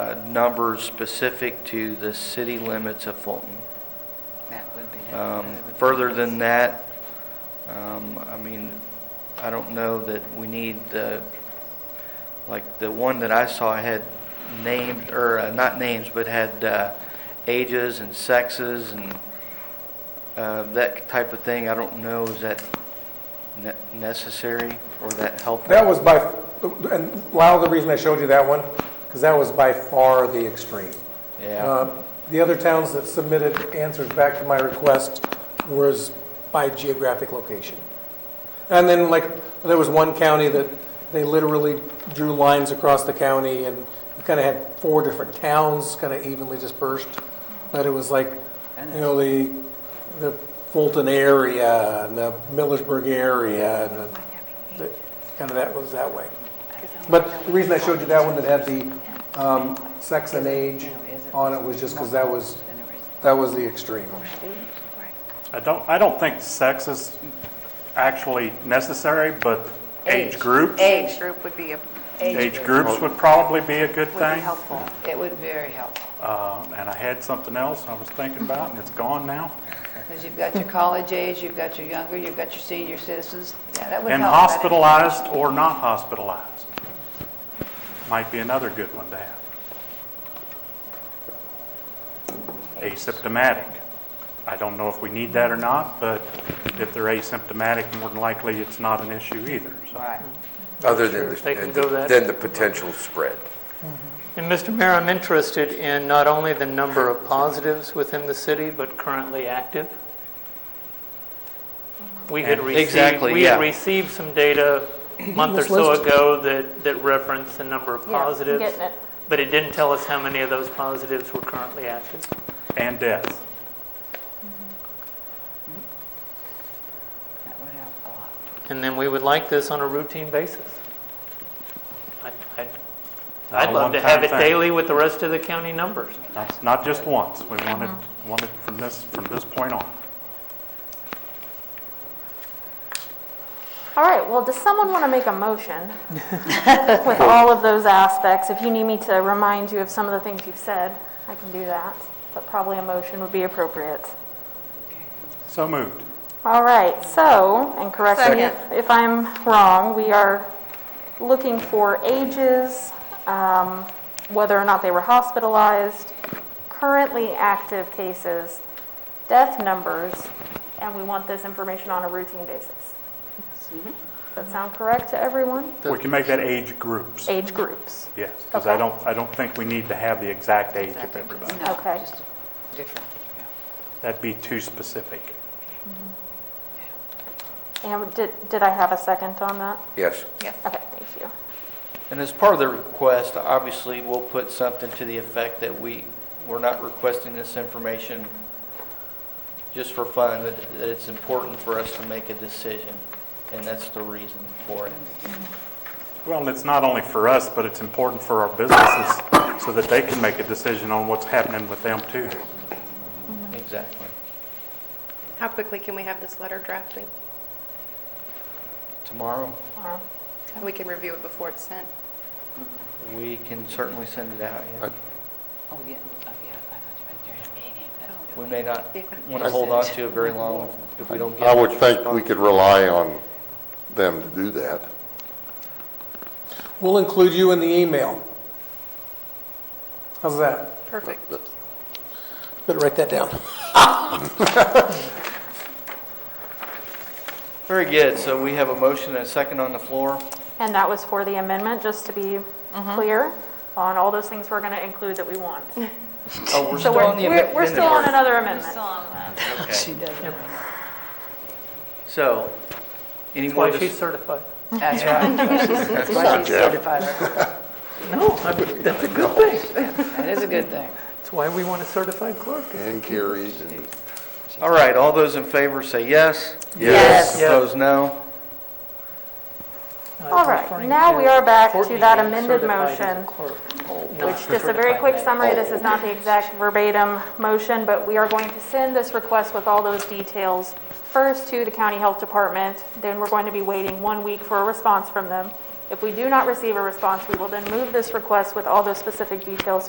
uh, numbers specific to the city limits of Fulton. That would be. Um, Further than that, um, I mean, I don't know that we need the, like, the one that I saw had names, or uh, not names, but had uh, ages and sexes and uh, that type of thing. I don't know, is that ne- necessary or that helpful? That was by, and a lot of the reason I showed you that one, because that was by far the extreme. Yeah, Uh, The other towns that submitted answers back to my request was by geographic location. And then like, there was one county that they literally drew lines across the county and kind of had four different towns kind of evenly dispersed. But it was like, you know, the, the Fulton area and the Millersburg area and the- the, kind of that was that way. But the reason I showed you that one that had the um, sex and age on it was just because that was, that was the extreme. I don't, I don't think sex is actually necessary, but age groups, Age group would be a, age groups would probably be a good would be thing. helpful. It would be very helpful, Uh, And I had something else I was thinking about, and it's gone now. because you've got your college age, you've got your younger, you've got your senior citizens, yeah, that would help. And hospitalized or not hospitalized might be another good one to have. Asymptomatic. I don't know if we need that or not, but if they're asymptomatic, more than likely, it's not an issue either, so. Right. Other than, Sure, if they can the- go that- than the potential spread. And Mr. Mayor, I'm interested in not only the number of positives within the city, but currently active. We had And- received, Exactly, we had yeah. received some data a month or This so list? ago that, that referenced the number of Yeah, I'm positives. getting it. But it didn't tell us how many of those positives were currently active. And death. That would help a lot. And then we would like this on a routine basis. I'd- I'd, Not I'd a love to one-time have it thing. daily with the rest of the county numbers. Not- Not just once, we want it, want it from this, from this point on. All right, well, does someone want to make a motion with all of those aspects? If you need me to remind you of some of the things you've said, I can do that, but probably a motion would be appropriate. So moved. All right, so, and correct me if- if I'm wrong, we are looking for ages, um, whether or not they were hospitalized, currently active cases, death numbers, and we want this information on a routine basis. Does that sound correct to everyone? We can make that age groups, Age groups. yes, because I Okay. don't, I don't think we need to have the exact age of everybody. No, Okay. just Different. yeah. That'd be too specific. And did, did I have a second on that? Yes. Okay, thank you. and as part of the request, obviously, we'll put something to the effect that we, we're not requesting this information just for fun, that that it's important for us to make a decision, and that's the reason for it. Well, and it's not only for us, but it's important for our businesses so that they can make a decision on what's happening with them too. Exactly. How quickly can we have this letter drafting? Tomorrow, Tomorrow. We can review it before it's sent. we can certainly send it out, yeah. Oh, yeah, oh, yeah, I thought you meant during the meeting. That's good. We may not want to hold on to it very long if we don't get. I would think we could rely on them to do that. We'll include you in the email. How's that? Perfect. Better write that down. Very good, so we have a motion and a second on the floor. And that was for the amendment, just to be Mm-hmm. clear on all those things we're going to include that we want. Oh, we're So still we're, on the we're we're amendment. still on another amendment. She doesn't. So, any That's more? why dis- she's certified. That's right. That's why she's certified. No, I- that's a good thing. That is a good thing. That's why we want a certified clerk. And Carrie, and All right, all those in favor say yes. Yes. Yes. Opposed, no. All right, now we are back to that uh, amended motion, which which, just a very quick summary, this is not the exact verbatim motion, but we are going to send this request with all those details first to the county health department, then we're going to be waiting one week for a response from them. If we do not receive a response, we will then move this request with all those specific details